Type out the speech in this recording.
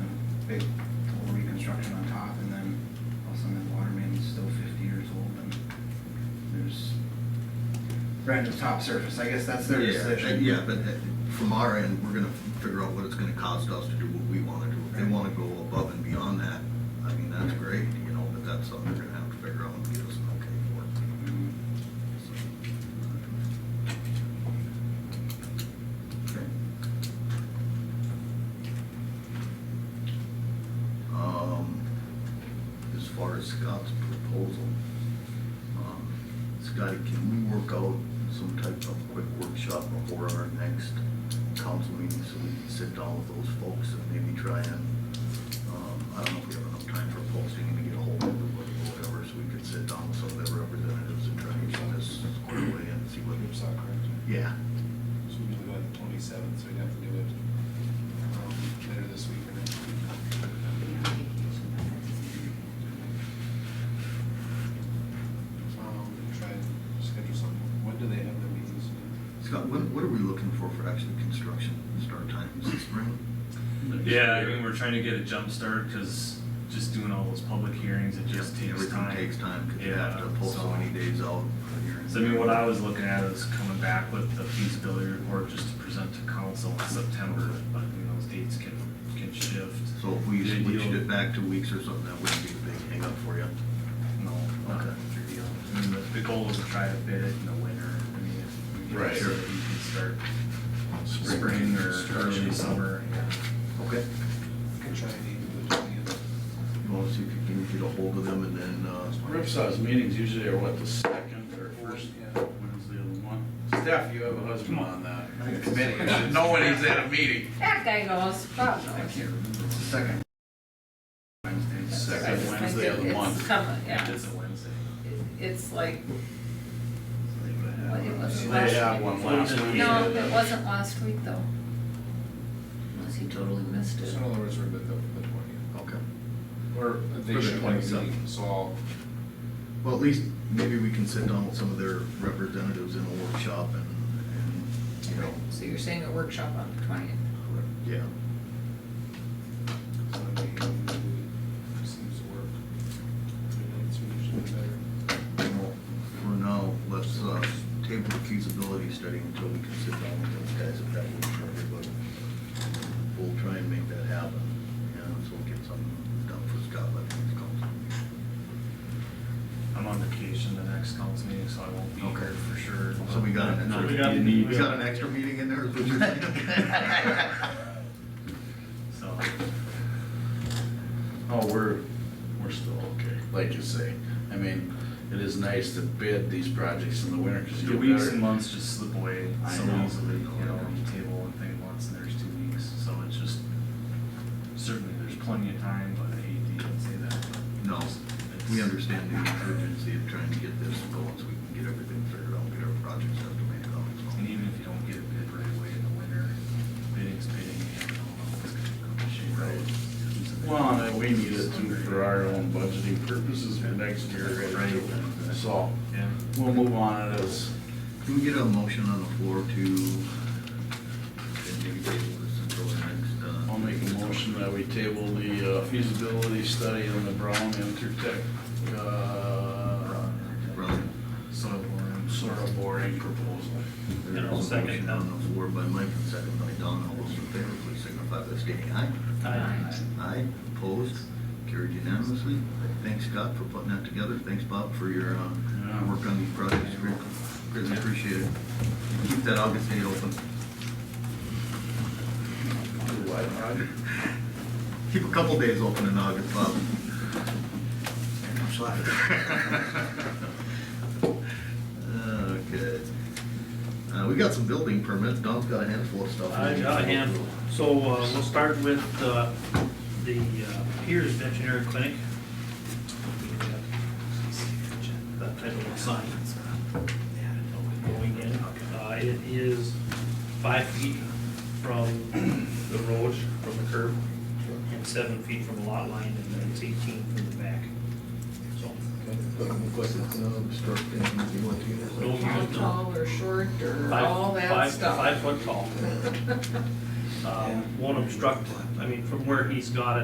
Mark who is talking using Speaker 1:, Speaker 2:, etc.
Speaker 1: big total reconstruction on top, and then also that water main is still fifty years old, and there's random top surface, I guess that's their
Speaker 2: Yeah, uh,
Speaker 1: decision.
Speaker 2: Yeah, but uh, from our end, we're gonna figure out what it's gonna cost us to do what we wanna do. If they
Speaker 1: Right.
Speaker 2: wanna go above and beyond that, I mean, that's great, you know, but that's something they're gonna have to figure out and get us an okay for.
Speaker 3: Mm-hmm.
Speaker 2: So, okay. Um, as far as Scott's proposal, um, Scotty, can we work out some type of quick workshop before our next council meeting so we can sit down with those folks and maybe try and, um, I don't know if we have enough time for posting and to get a hold of everybody or whatever, so we could sit down with some of their representatives and try and get this squared away and see what,
Speaker 4: Oops, not correct.
Speaker 2: yeah.
Speaker 4: So we do it on the twenty-seventh, so we'd have to do it um, later this week or next week. Um, Try and schedule something. When do they have their meetings?
Speaker 2: Scott, what, what are we looking for for actually construction start time? Is it spring?
Speaker 5: Yeah, I mean, we're trying to get a jump start because just doing all those public hearings, it just takes time.
Speaker 2: Everything takes time, because you have to pull so many days out. for your-
Speaker 5: So I mean, what I was looking at is coming back with the feasibility report just to present to council in September, but you know, those dates can, can shift.
Speaker 2: So if we
Speaker 5: The
Speaker 2: switched
Speaker 5: ideal-
Speaker 2: it back to weeks or something, that wouldn't be a big hangup for you.
Speaker 5: No, not
Speaker 2: Okay.
Speaker 5: a big deal. I mean, the, the goal is to try to bid it in the winter. I mean, if you
Speaker 2: Right.
Speaker 5: so that you can start spring or early summer, yeah.
Speaker 2: Okay.
Speaker 4: Can try and even do it on the
Speaker 2: You want to see if you can get a hold of them and then, uh,
Speaker 3: Ripsaw's meetings usually are what, the second or first
Speaker 4: Yeah.
Speaker 3: Wednesday of the month? Steph, you have a husband on that committee.
Speaker 4: it's-
Speaker 3: No one is at a meeting.
Speaker 6: That guy goes, oh, Bob
Speaker 1: I can't
Speaker 6: knows.
Speaker 1: remember, it's the second Wednesday.
Speaker 3: Second
Speaker 6: I- I
Speaker 3: Wednesday of the
Speaker 6: think it's
Speaker 3: month.
Speaker 6: some- yeah.
Speaker 5: It's a Wednesday.
Speaker 6: It- It's like, Well, it was
Speaker 3: They
Speaker 6: last
Speaker 3: have
Speaker 6: week.
Speaker 3: one last week.
Speaker 6: no, it wasn't last week though. Unless he totally missed
Speaker 4: So
Speaker 6: it.
Speaker 4: in other words, we're at the the twentieth.
Speaker 2: okay.
Speaker 4: Or
Speaker 2: For
Speaker 4: they
Speaker 2: the
Speaker 4: should have a
Speaker 2: 27th.
Speaker 4: meeting, so I'll,
Speaker 2: Well, at least maybe we can sit down with some of their representatives in a workshop and, and, you know,
Speaker 6: So you're saying a workshop on the twentieth?
Speaker 2: yeah.
Speaker 4: Sunday, it seems to work. Midnight's usually better.
Speaker 2: Well, For now, let's, uh, table the feasibility study until we can sit down with those guys if that works for everybody. We'll try and make that happen, and so we'll get something done for Scott by the next council.
Speaker 5: I'm on vacation the next council meeting, so I won't be
Speaker 2: Okay.
Speaker 5: here for sure.
Speaker 2: So we got an
Speaker 5: No,
Speaker 2: extra,
Speaker 5: we got-
Speaker 2: we got an extra meeting in there, is what you're saying?
Speaker 5: So,
Speaker 3: Oh, we're, we're still okay, like you say. I mean, it is nice to bid these projects in the winter because
Speaker 5: the
Speaker 3: you
Speaker 5: weeks
Speaker 3: get
Speaker 5: and
Speaker 3: better.
Speaker 5: months just slip away
Speaker 3: I
Speaker 5: so
Speaker 3: know.
Speaker 5: easily, you know, you table one thing once and there's two weeks, so it's just, certainly there's plenty of time, but I hate to even say that, but.
Speaker 2: No,
Speaker 5: it's-
Speaker 2: we understand the urgency of trying to get this going so we can get everything figured out, get our projects estimated out. so.
Speaker 5: And even if you don't get a bid right away in the winter, bidding's bidding, and I don't know if it's gonna come to shape. Right.
Speaker 3: Well, and we need it too for our own budgeting purposes for next year, right?
Speaker 5: Right.
Speaker 3: So,
Speaker 5: Yeah.
Speaker 3: we'll move on to this.
Speaker 2: Can we get a motion on the floor to, and maybe table this until the next, uh?
Speaker 3: I'll make a motion that we table the uh, feasibility study on the Brown Intertech, uh,
Speaker 2: Brown.
Speaker 5: Soil boring.
Speaker 3: soil boring proposal.
Speaker 2: There's a motion On the floor by Mike, and second by Don, all those in favor, please signify by stating aye. Aye, opposed, carried unanimously. Thanks Scott for putting that together, thanks Bob for your, uh,
Speaker 3: Yeah.
Speaker 2: work on these projects, Great- greatly appreciated. Keep that August date open. Keep a couple days open in August, Bob. Okay. Uh, we got some building permits, Don's got a handful of stuff.
Speaker 7: I got a handful. So uh, we'll start with uh, the uh, Piers Veterinary Clinic. That type of sign. Going in, Uh, it is five feet from the road, from the curb, and seven feet from the lot line, and then it's eighteen from the back. So, no
Speaker 6: How
Speaker 7: use, no.
Speaker 6: tall or short or
Speaker 7: Five-
Speaker 6: all that
Speaker 7: five- Uh,
Speaker 6: stuff?
Speaker 7: Five foot tall. Um, Won't obstruct, I mean, from where he's got it,